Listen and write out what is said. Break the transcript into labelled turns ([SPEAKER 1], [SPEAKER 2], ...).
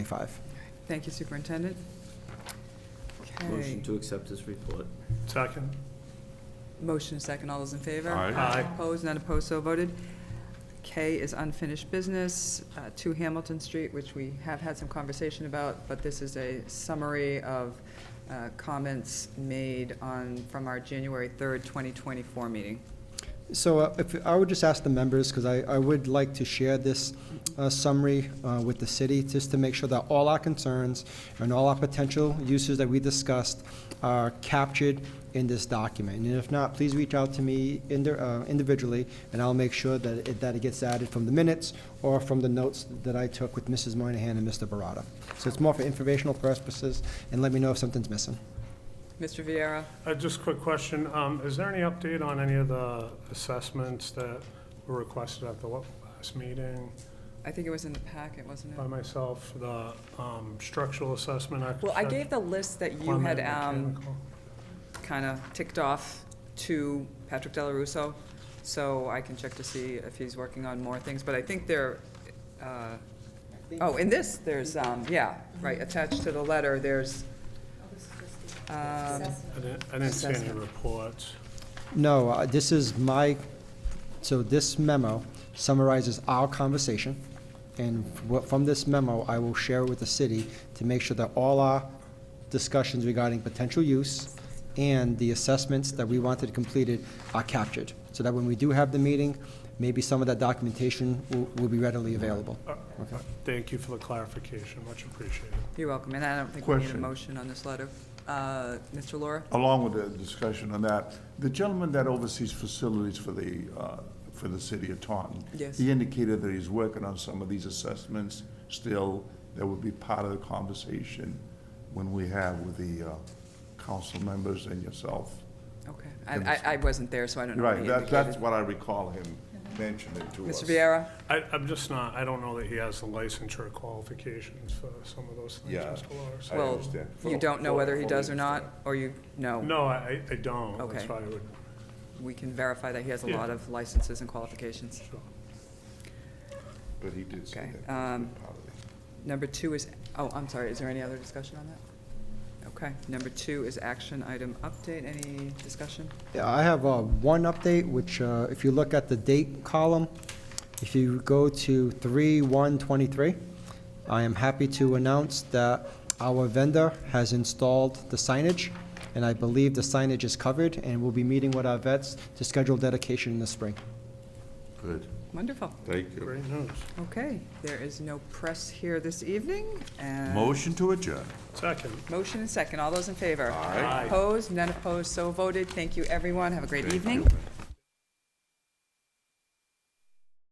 [SPEAKER 1] 25.
[SPEAKER 2] Thank you, Superintendent. Okay,
[SPEAKER 3] Motion to accept this report.
[SPEAKER 4] Second.
[SPEAKER 2] motion and second, all those in favor?
[SPEAKER 5] Aye.
[SPEAKER 4] Aye.
[SPEAKER 2] Opposed, none opposed, so voted. K is unfinished business, uh, 2 Hamilton Street, which we have had some conversation about, but this is a summary of uh, comments made on, from our January 3rd, 2024 meeting.
[SPEAKER 1] So uh, if, I would just ask the members, because I, I would like to share this uh, summary uh, with the city, just to make sure that all our concerns and all our potential uses that we discussed are captured in this document. And if not, please reach out to me indi- uh, individually, and I'll make sure that it, that it gets added from the minutes or from the notes that I took with Mrs. Moynihan and Mr. Barata. So it's more for informational purposes, and let me know if something's missing.
[SPEAKER 2] Mr. Viera,
[SPEAKER 4] Uh, Just a quick question. Um, Is there any update on any of the assessments that were requested at the wa- last meeting
[SPEAKER 2] I think it was in the packet, wasn't
[SPEAKER 4] by
[SPEAKER 2] it?
[SPEAKER 4] myself, the um, structural assessment?
[SPEAKER 2] Well, I
[SPEAKER 4] architect-
[SPEAKER 2] gave the list that you had
[SPEAKER 4] plumbing,
[SPEAKER 2] um,
[SPEAKER 4] mechanical?
[SPEAKER 2] kind of ticked off to Patrick Delarusso, so I can check to see if he's working on more things, but I think there, uh, oh, in this, there's, um, yeah, right, attached to the letter, there's, um,
[SPEAKER 4] I didn't- I didn't see any
[SPEAKER 2] Assessment.
[SPEAKER 4] reports.
[SPEAKER 1] No, uh, this is my, so this memo summarizes our conversation, and wha- from this memo, I will share with the city to make sure that all our discussions regarding potential use and the assessments that we wanted completed are captured, so that when we do have the meeting, maybe some of that documentation will will be readily available.
[SPEAKER 4] Uh, Thank you for the clarification. Much appreciated.
[SPEAKER 2] you're welcome, and I don't think we need a
[SPEAKER 5] Question.
[SPEAKER 2] motion on this letter. Uh, Mr. Laura?
[SPEAKER 5] Along with the discussion on that, the gentleman that oversees facilities for the, uh, for the city of Taunton.
[SPEAKER 2] Yes.
[SPEAKER 5] He indicated that he's working on some of these assessments still, that would be part of the conversation when we have with the uh, council members and yourself.
[SPEAKER 2] Okay, I, I- I wasn't there, so I don't know what
[SPEAKER 5] Right,
[SPEAKER 2] he
[SPEAKER 5] that, that's
[SPEAKER 2] indicated. Mm-hmm.
[SPEAKER 5] what I recall him mentioning to us.
[SPEAKER 2] Mr. Viera?
[SPEAKER 4] I- I'm just not, I don't know that he has the licensure qualifications for some of those things,
[SPEAKER 5] Yeah.
[SPEAKER 4] Mr. Lawrence.
[SPEAKER 5] I
[SPEAKER 2] Well,
[SPEAKER 5] understand.
[SPEAKER 2] you don't know whether he
[SPEAKER 5] Fully
[SPEAKER 2] does or not,
[SPEAKER 5] understand.
[SPEAKER 2] or you, no?
[SPEAKER 4] No, I I don't.
[SPEAKER 2] Okay.
[SPEAKER 4] That's why I would,
[SPEAKER 2] We can verify that he has a
[SPEAKER 4] Yeah.
[SPEAKER 2] lot of licenses and qualifications.
[SPEAKER 4] sure.
[SPEAKER 5] But he did say
[SPEAKER 2] Okay,
[SPEAKER 5] that.
[SPEAKER 2] um, Number two is, oh, I'm sorry, is there any other discussion on that? Okay, number two is action item update, any discussion?
[SPEAKER 1] Yeah, I have uh, one update, which uh, if you look at the date column, if you go to 3/1/23, I am happy to announce that our vendor has installed the signage, and I believe the signage is covered, and we'll be meeting with our vets to schedule dedication in the spring.
[SPEAKER 5] Good,
[SPEAKER 2] Wonderful,
[SPEAKER 5] thank you.
[SPEAKER 4] Great news.
[SPEAKER 2] okay, there is no press here this evening, and.
[SPEAKER 5] Motion to adjourn.
[SPEAKER 4] Second.
[SPEAKER 2] Motion and second, all those in favor?
[SPEAKER 5] Aye.
[SPEAKER 4] Aye.
[SPEAKER 2] Opposed, none opposed, so voted, thank you, everyone, have a great evening.